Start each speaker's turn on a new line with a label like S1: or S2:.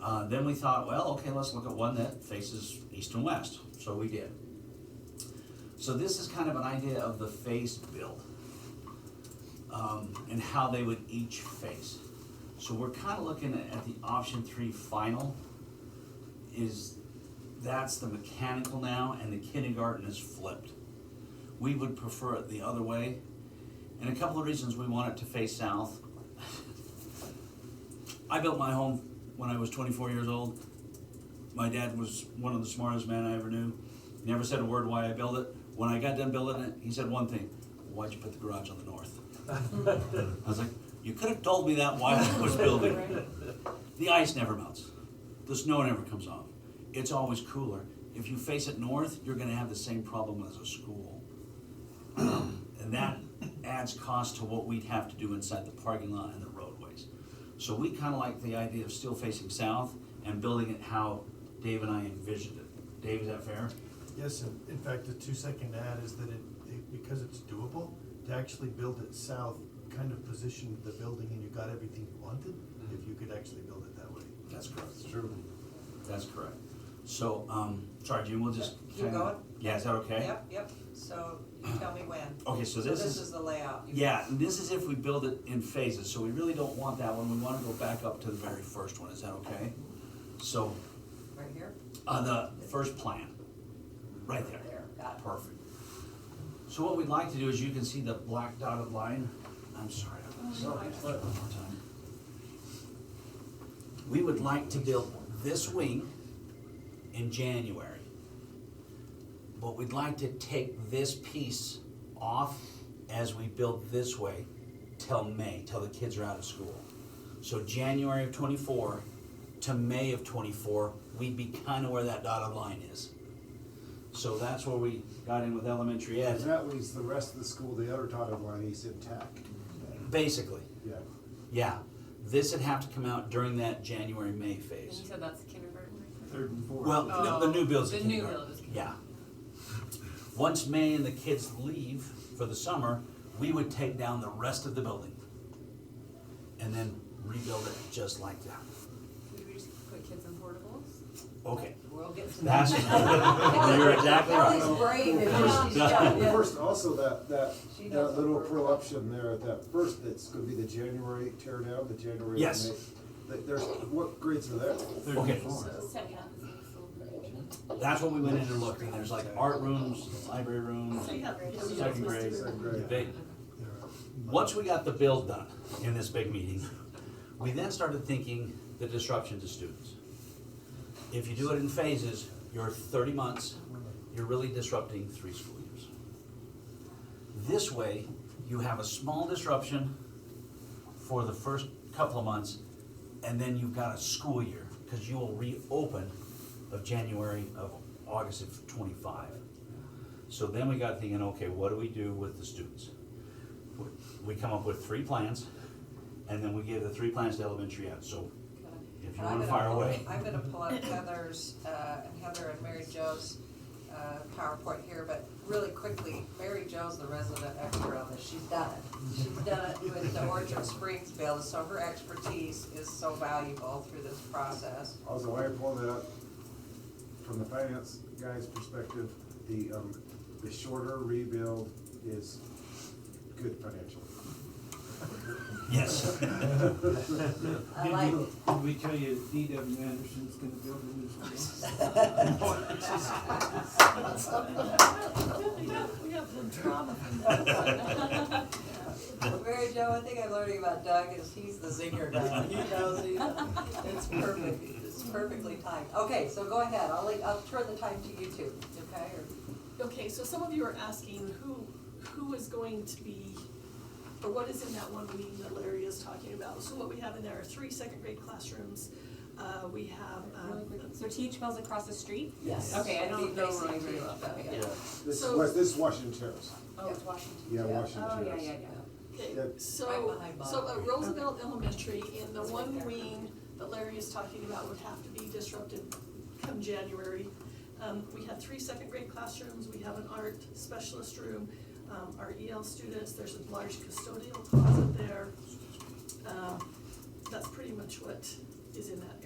S1: Uh, then we thought, well, okay, let's look at one that faces east and west, so we did. So this is kind of an idea of the face build, um, and how they would each face. So we're kind of looking at at the option three final, is, that's the mechanical now, and the kindergarten is flipped. We would prefer it the other way, and a couple of reasons we want it to face south. I built my home when I was 24 years old. My dad was one of the smartest men I ever knew. He never said a word why I built it. When I got done building it, he said one thing: "Why'd you put the garage on the north?" I was like, "You could have told me that while I was building." The ice never melts. The snow never comes off. It's always cooler. If you face it north, you're going to have the same problem as a school. Um, And that adds cost to what we'd have to do inside the parking lot and the roadways. So we kind of like the idea of still facing south and building it how Dave and I envisioned it. Dave, is that fair?
S2: Yes, and in fact, the two-second ad is that it, it- because it's doable, to actually build it south, kind of positioned the building and you got everything you wanted, if you could actually build it that way.
S1: That's correct.
S3: True.
S1: That's correct. So, um, sorry, June, we'll just.
S4: Keep going.
S1: Yeah, is that okay?
S4: Yep, yep, so you tell me when.
S1: Okay, so
S4: So
S1: this
S4: this
S1: is.
S4: is the layout. You-
S1: Yeah, and this is if we build it in phases, so we really don't want that one, we wanna go back up to the very first one, is that okay? So,
S4: Right here?
S1: on the first plan, right there.
S4: There, got it.
S1: Perfect. So what we'd like to do is, you can see the black dotted line, I'm sorry, I'm
S4: Oh,
S1: gonna say
S4: no,
S1: that
S4: I-
S1: one more time. We would like to build this wing in January. But we'd like to take this piece off as we build this way till May, till the kids are out of school. So January of twenty-four to May of twenty-four, we'd be kinda where that dotted line is. So that's where we got in with elementary
S3: And
S1: ed,
S3: that leaves the rest of the school, the other dotted line is intact.
S2: Mm-hmm.
S1: basically,
S3: Yeah,
S1: yeah. This would have to come out during that January-May
S5: And you
S1: phase.
S5: said that's kindergarten?
S3: third and fourth.
S1: Well, no, the new build's
S5: Oh,
S1: a
S5: the new
S1: kindergarten.
S5: build is
S1: Yeah. Once May and the kids leave for the summer, we would take down the rest of the building. And then rebuild it just like that.
S5: Would we just put kids in portables?
S1: Okay,
S4: We'll get some.
S1: that's, you're exactly
S4: Kelly's
S1: right.
S4: brave and she's
S1: Yeah.
S4: got it.
S3: First, also that, that,
S4: She
S3: that
S4: does
S3: little
S4: work.
S3: prolapsion there at that first, that's gonna be the January tear down, the January.
S1: Yes.
S3: May. Th- There's, what grades are there?
S1: Okay.
S5: Second half is in school.
S1: That's what we went in and looked, and there's like art rooms, library rooms, second grade.
S3: Second
S1: They-
S3: grade.
S2: There are-
S1: Once we got the build done in this big meeting, we then started thinking the disruption to students. If you do it in phases, you're thirty months, you're really disrupting three school years. This way, you have a small disruption for the first couple of months, and then you've got a school year, because you will reopen of January of August of twenty-five. So then we got thinking, okay, what do we do with the students? We come up with three plans, and then we give the three plans to elementary ed, so if you
S4: And I'm
S1: wanna
S4: gonna
S1: fire
S4: pull-
S1: away.
S4: I'm gonna pull up Heather's, uh, and Heather and Mary Jo's, uh, PowerPoint here, but really quickly, Mary Jo's the resident expert on this, she's done it. She's done it with the Orchard Springs build, so her expertise is so valuable through this process.
S3: Also, I pulled it up from the finance guy's perspective, the, um, the shorter rebuild is good financially.
S1: Yes.
S4: I
S6: Did
S4: like
S6: we-
S4: it.
S6: Did we tell you D.W. Anderson's gonna build a new school?
S4: Mary Jo, one thing I'm learning about Doug is he's the zinger guy. He knows, he it's perfect, it's perfectly timed. Okay, so go ahead, I'll, le- I'll turn the time to you two, okay? Or-
S7: Okay, so some of you are asking who, who is going to be, or what is in that one meeting that Larry is talking about? So what we have in there are three second grade classrooms, uh, we have, um,
S5: So teach bells across the street?
S4: Yes.
S5: Okay, I don't know Roy very well.
S4: Yeah.
S3: This is,
S7: So-
S3: West- this is Washington Terrace,
S5: Oh, it's Washington.
S3: yeah,
S4: Yeah.
S3: Washington
S5: Oh,
S3: Terrace.
S5: yeah, yeah,
S7: okay,
S3: Yeah.
S4: Right
S7: so,
S4: behind Bob.
S7: so at Roosevelt Elementary, in the
S4: It's right
S7: one
S4: there.
S7: wing that Larry is talking about would have to be disrupted come January. Um, we have three second grade classrooms, we have an art specialist room, um, our EL students, there's a large custodial closet there. Um, that's pretty much what is in that